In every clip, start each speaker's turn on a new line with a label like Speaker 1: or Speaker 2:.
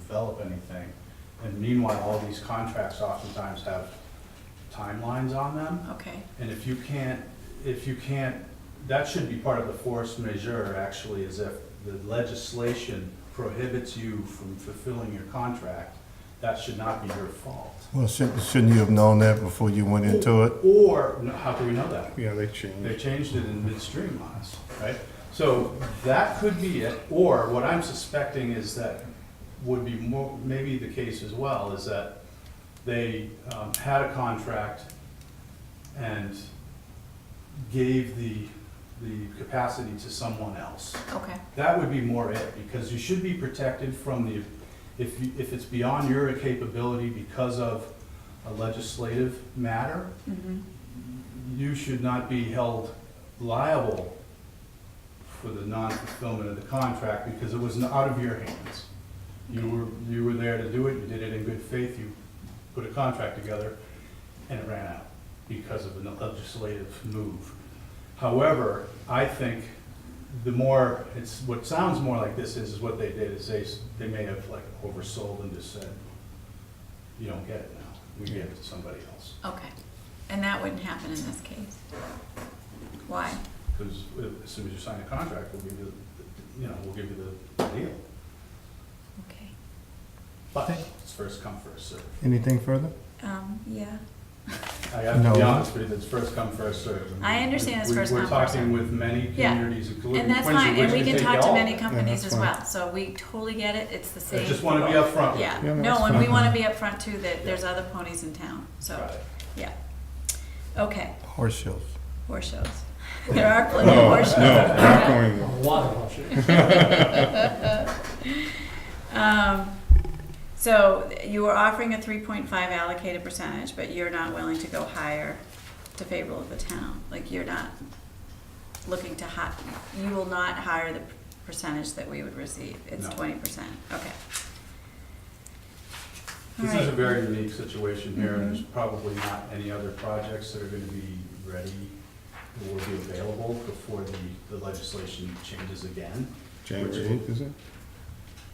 Speaker 1: develop anything. And meanwhile, all these contracts oftentimes have timelines on them.
Speaker 2: Okay,
Speaker 1: And if you can't, if you can't, that should be part of the force majeure, actually, is if the legislation prohibits you from fulfilling your contract, that should not be your fault.
Speaker 3: Well, shouldn't, shouldn't you have known that before you went into it?
Speaker 1: Or, no, how do we know that?
Speaker 4: Yeah, they
Speaker 1: They
Speaker 4: changed.
Speaker 1: changed it in midstream on us, right? So that could be it, or what I'm suspecting is that would be more, maybe the case as well, is that they um, had a contract and gave the, the capacity to someone else.
Speaker 2: okay,
Speaker 1: That would be more it, because you should be protected from the, if, you- if it's beyond your capability because of a legislative matter,
Speaker 2: hmm
Speaker 1: you should not be held liable for the non-fulfillment of the contract because it was not out of your hands. You were, you were there to do it, you did it in good faith, you put a contract together, and it ran out because of a legislative move. However, I think the more, it's, what sounds more like this is, is what they did is they, s- they may have like oversold and just said, you don't get it now, we give it to somebody else.
Speaker 2: okay. And that wouldn't happen in this case? Why?
Speaker 1: Because as soon as you sign a contract, we'll give you, the- you know, we'll give you the deal.
Speaker 2: Okay.
Speaker 1: But it's first come, first served.
Speaker 3: Anything further?
Speaker 2: Um, yeah,
Speaker 1: I have to be
Speaker 3: No.
Speaker 1: honest with you, it's first come, first served.
Speaker 2: I understand it's
Speaker 1: We-
Speaker 2: first come,
Speaker 1: We're
Speaker 2: first
Speaker 1: talking
Speaker 2: served.
Speaker 1: with many
Speaker 2: Yeah.
Speaker 1: communities, including
Speaker 2: and that's
Speaker 1: Quincy,
Speaker 2: fine,
Speaker 1: which
Speaker 2: and we can
Speaker 1: take
Speaker 2: talk to
Speaker 1: all.
Speaker 2: many companies as
Speaker 3: that's
Speaker 2: well, so we totally get it, it's the
Speaker 1: I
Speaker 2: same.
Speaker 1: just want to be upfront. with
Speaker 2: Yeah,
Speaker 1: you.
Speaker 3: Yeah,
Speaker 2: no,
Speaker 3: that's
Speaker 2: and we
Speaker 3: fine.
Speaker 2: wanna be upfront too, that there's other ponies in town, so,
Speaker 1: Right.
Speaker 2: yeah. Okay,
Speaker 3: Horse shows.
Speaker 2: horse shows. There are plenty of horse shows.
Speaker 4: No, not going there.
Speaker 2: Um, so you were offering a three point five allocated percentage, but you're not willing to go higher to favor of the town, like you're not looking to hi, you will not hire the percentage that we would receive, it's
Speaker 1: No.
Speaker 2: twenty percent, okay.
Speaker 1: This is a
Speaker 2: Alright.
Speaker 1: very unique situation here, and
Speaker 2: Mm-hmm.
Speaker 1: there's probably not any other projects that are going to be ready or will be available before the- the legislation changes again.
Speaker 4: January eighth, is it?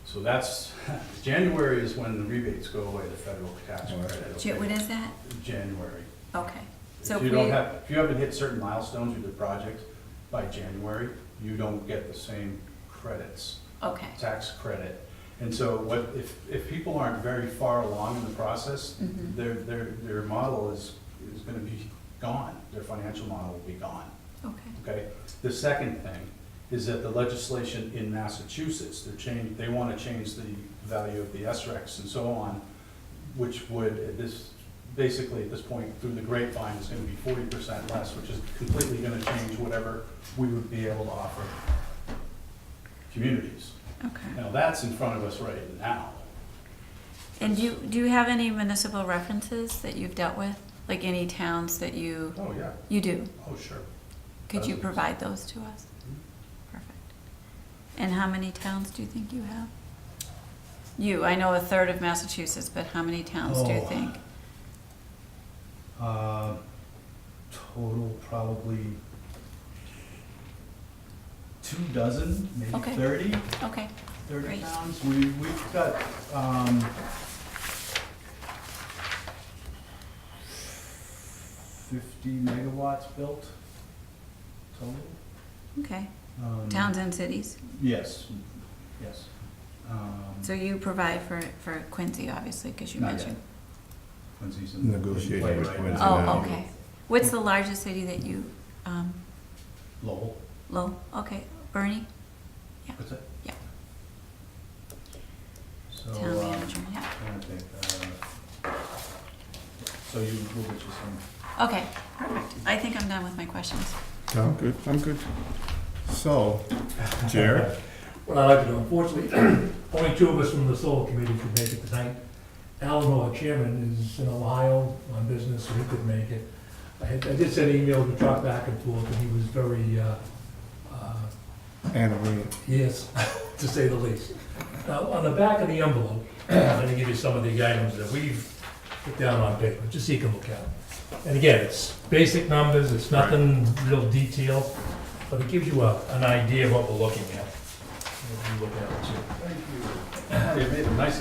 Speaker 1: So that's, January is when the rebates go away, the federal tax
Speaker 4: Oh, that's
Speaker 1: credit.
Speaker 2: Ju- When is that?
Speaker 1: January.
Speaker 2: Okay, so
Speaker 1: If
Speaker 2: if
Speaker 1: you don't
Speaker 2: we,
Speaker 1: have, if you haven't hit certain milestones with the project by January, you don't get the same credits,
Speaker 2: okay,
Speaker 1: tax credit. And so what, if, if people aren't very far along in the process,
Speaker 2: Mhm.
Speaker 1: their, their, their model is, is gonna be gone. Their financial model will be gone.
Speaker 2: okay,
Speaker 1: Okay, the second thing is that the legislation in Massachusetts, they're change, they wanna change the value of the SRECs and so on, which would, at this, basically at this point, through the grapevine, is gonna be forty percent less, which is completely gonna change whatever we would be able to offer communities.
Speaker 2: okay.
Speaker 1: Now, that's in front of us right now.
Speaker 2: And do you, do you have any municipal references that you've dealt with? Like any towns that you,
Speaker 1: Oh, yeah,
Speaker 2: you do?
Speaker 1: oh, sure.
Speaker 2: Could you
Speaker 1: Dozens.
Speaker 2: provide those to us?
Speaker 1: hmm?
Speaker 2: Perfect. And how many towns do you think you have? You, I know a third of Massachusetts, but how many towns do you
Speaker 1: Oh.
Speaker 2: think?
Speaker 1: Uh, Total probably two dozen, maybe
Speaker 2: Okay.
Speaker 1: thirty,
Speaker 2: Okay,
Speaker 1: thirty
Speaker 2: Great.
Speaker 1: pounds. We, we've got, um, fifty megawatts built total.
Speaker 2: okay.
Speaker 1: Um,
Speaker 2: Towns and cities.
Speaker 1: Yes, yes. Um,
Speaker 2: So you provide for, for Quincy, obviously, because you
Speaker 1: Not
Speaker 2: mentioned.
Speaker 1: Quincy's in. in
Speaker 3: Negotiating
Speaker 1: play
Speaker 3: with
Speaker 1: right
Speaker 3: Quincy
Speaker 1: now.
Speaker 3: now.
Speaker 2: Oh, okay. What's the largest city that you, um,
Speaker 1: Lowell,
Speaker 2: Lowell, okay, Bernie,
Speaker 1: what's it?
Speaker 2: Yeah.
Speaker 1: So,
Speaker 2: town
Speaker 1: um,
Speaker 2: manager, yeah.
Speaker 1: trying to think, uh, So you, we'll get you some.
Speaker 2: Okay, perfect. I think I'm done with my questions.
Speaker 4: I'm good, I'm good.
Speaker 3: So, Jared,
Speaker 5: What I'd like to do, unfortunately, only two of us from the solar committee could make it tonight. Alan, our chairman, is in Ohio on business, so he couldn't make it. I had- I did send an email to talk back and forth, and he was very, uh, uh,
Speaker 3: Anna Maria.
Speaker 5: Yes, to say the least. Now, on the back of the envelope, I'm gonna give you some of the items that we've put down on paper, just so you can look at them. And again, it's basic numbers, it's nothing real detailed, but it gives you a, an idea of what we're looking at. What we're looking at, too.
Speaker 1: Thank you. You made a nice